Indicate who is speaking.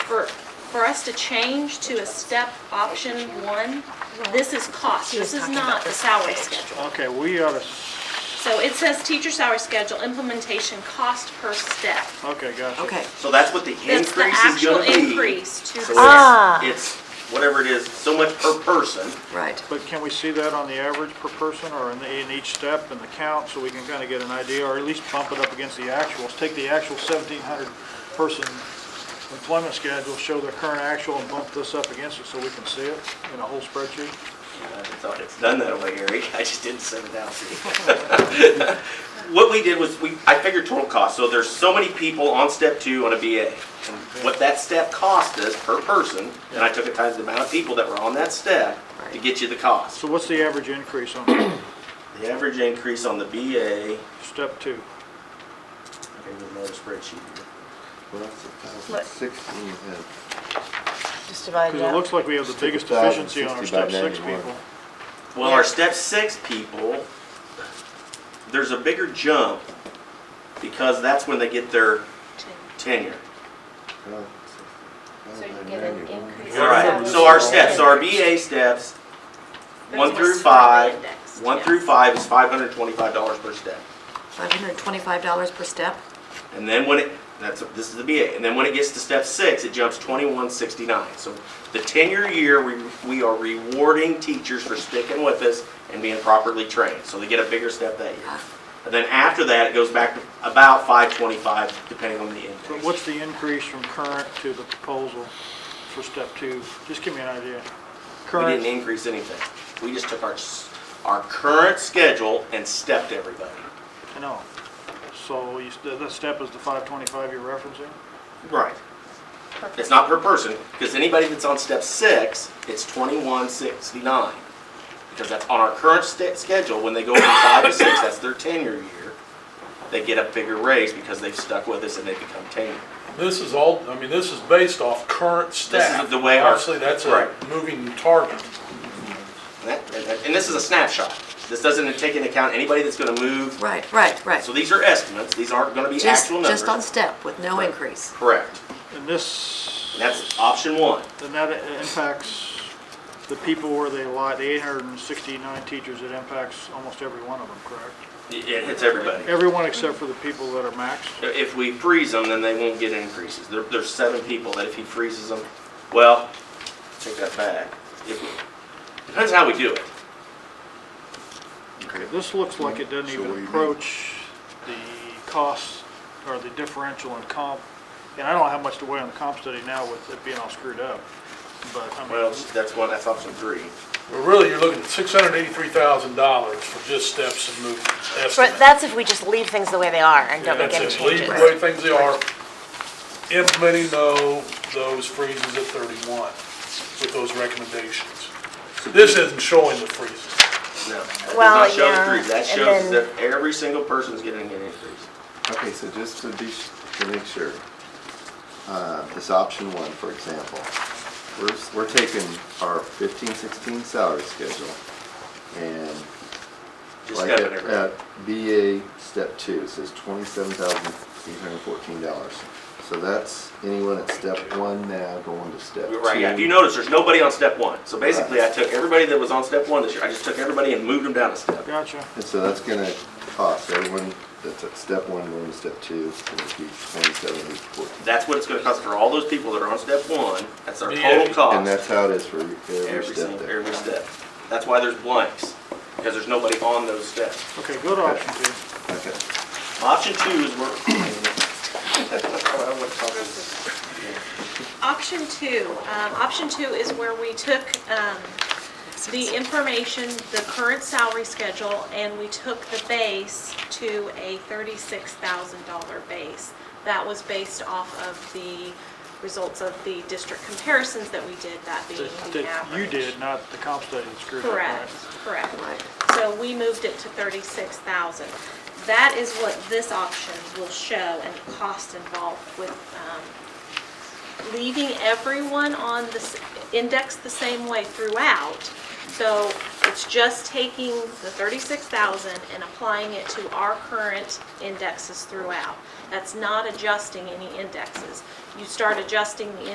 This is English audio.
Speaker 1: for, for us to change to a step option one, this is cost, this is not the salary schedule.
Speaker 2: Okay, we ought to,
Speaker 1: So it says teacher salary schedule, implementation cost per step.
Speaker 2: okay, gotcha.
Speaker 3: Okay.
Speaker 4: So that's what the
Speaker 1: It's the
Speaker 4: increase is
Speaker 1: actual
Speaker 4: gonna be.
Speaker 1: increase to the
Speaker 4: So
Speaker 1: step.
Speaker 3: Ah.
Speaker 4: It's whatever it is, so much per person.
Speaker 3: Right.
Speaker 2: But can we see that on the average per person or in, the- in each step and the count so we can kind of get an idea or at least bump it up against the actuals? Take the actual seventeen hundred person employment schedule, show the current actual and bump this up against it so we can see it in a whole spreadsheet?
Speaker 4: I thought it's done that way, Eric. I just didn't send it out to you. What we did was, we, I figured total cost, so there's so many people on step two on a BA. And What that step cost us per person, and I took it times the amount of people that were on that step to get you the cost.
Speaker 2: So what's the average increase on
Speaker 4: The average increase on the BA, okay,
Speaker 2: step two?
Speaker 4: with another spreadsheet here.
Speaker 5: Well, that's a thousand sixteen, yeah.
Speaker 3: Just divide
Speaker 2: Because it looks like we have the biggest efficiency on our step six people.
Speaker 4: Well, our step six people, there's a bigger jump because that's when they get their tenure.
Speaker 5: Well,
Speaker 6: So you get an
Speaker 5: 91.
Speaker 6: increase.
Speaker 4: All right, so our steps, so our BA steps, one through five, one through five is five hundred twenty-five dollars per step.
Speaker 3: Five hundred and twenty-five dollars per step?
Speaker 4: And then when it, that's, this is the BA, and then when it gets to step six, it jumps twenty-one sixty-nine. So the tenure year, we, we are rewarding teachers for sticking with us and being properly trained, so they get a bigger step that year. And then after that, it goes back to about five twenty-five, depending on the
Speaker 2: But
Speaker 4: index.
Speaker 2: what's the increase from current to the proposal for step two? Just give me an idea.
Speaker 4: We
Speaker 2: Current.
Speaker 4: didn't increase anything. We just took our, s- our current schedule and stepped everybody.
Speaker 2: I know. So you, st- that step is the five twenty-five you're referencing?
Speaker 4: Right. It's not per person, because anybody that's on step six, it's twenty-one sixty-nine. Because that's on our current sta schedule, when they go from five to six, that's their tenure year. They get a bigger raise because they've stuck with us and they become tenured.
Speaker 7: This is all, I mean, this is based off current staff.
Speaker 4: the way our-
Speaker 7: Obviously, that's a
Speaker 4: Right.
Speaker 7: moving target.
Speaker 4: And that- and that- and this is a snapshot. This doesn't take into account anybody that's gonna move.
Speaker 3: Right, right, right.
Speaker 4: So these are estimates, these aren't gonna be
Speaker 3: Just,
Speaker 4: actual
Speaker 3: just on
Speaker 4: numbers.
Speaker 3: step with no increase.
Speaker 4: Correct.
Speaker 2: And this,
Speaker 4: And that's option one.
Speaker 2: and that impacts the people where they lie, the eight hundred and sixty-nine teachers, it impacts almost every one of them, correct?
Speaker 4: It it hits everybody.
Speaker 2: Everyone except for the people that are maxed.
Speaker 4: If we freeze them, then they won't get increases. There, there's seven people that if he freezes them, well, take that back. If we- Depends how we do it.
Speaker 2: This looks like it doesn't
Speaker 5: So what do you
Speaker 2: even
Speaker 5: mean?
Speaker 2: approach the costs or the differential in comp. And I don't have much to weigh on the comp study now with it being all screwed up, but I mean.
Speaker 4: Well, that's one, that's option three.
Speaker 7: But really, you're looking at six hundred eighty-three thousand dollars for just steps and movement
Speaker 8: But
Speaker 7: estimate.
Speaker 8: that's if we just leave things the way they are and don't make
Speaker 7: That's
Speaker 8: any
Speaker 7: it, leave
Speaker 8: changes.
Speaker 7: the way things they are, implementing though, those freezes at thirty-one with those recommendations. This isn't showing the freezes.
Speaker 4: No, that does
Speaker 8: Well,
Speaker 4: not show the
Speaker 8: yeah,
Speaker 4: freeze. That
Speaker 8: and
Speaker 4: shows
Speaker 8: then-
Speaker 4: that every single person's getting an increase.
Speaker 5: Okay, so just to be, s- to make sure, uh, this option one, for example, we're, s- we're taking our fifteen, sixteen salary schedule and
Speaker 4: Just
Speaker 5: like uh,
Speaker 4: step
Speaker 5: at,
Speaker 4: it every.
Speaker 5: at BA step two, it says twenty-seven thousand eight hundred and fourteen dollars. So that's anyone at step one now going to step two.
Speaker 4: Right, yeah, if you notice, there's nobody on step one. So basically, I took everybody that was on step one this year, I just took everybody and moved them down a step.
Speaker 2: Gotcha.
Speaker 5: And so that's gonna cost everyone that's at step one going to step two, it's gonna be twenty-seven eight fourteen.
Speaker 4: That's what it's gonna cost for all those people that are on step one. That's our
Speaker 7: Yeah.
Speaker 4: total cost.
Speaker 5: And that's how it is for every
Speaker 4: Oh. Every
Speaker 5: step
Speaker 4: single,
Speaker 5: there.
Speaker 4: every step. That's why there's blanks, because there's nobody on those steps.
Speaker 2: Okay, go to option two.
Speaker 5: Okay.
Speaker 4: Option two is where. I want to talk about-
Speaker 1: Option two, um, option two is where we took, um, the information, the current salary schedule, and we took the base to a thirty-six thousand dollar base. That was based off of the results of the district comparisons that we did, that being
Speaker 2: That
Speaker 1: the
Speaker 2: that you
Speaker 1: average.
Speaker 2: did, not the comp study that screwed up, right?
Speaker 1: Correct, correct.
Speaker 3: Right.
Speaker 1: So we moved it to thirty-six thousand. That is what this option will show and the cost involved with, um, leaving everyone on this, indexed the same way throughout. So it's just taking the thirty-six thousand and applying it to our current indexes throughout. That's not adjusting any indexes. You start adjusting the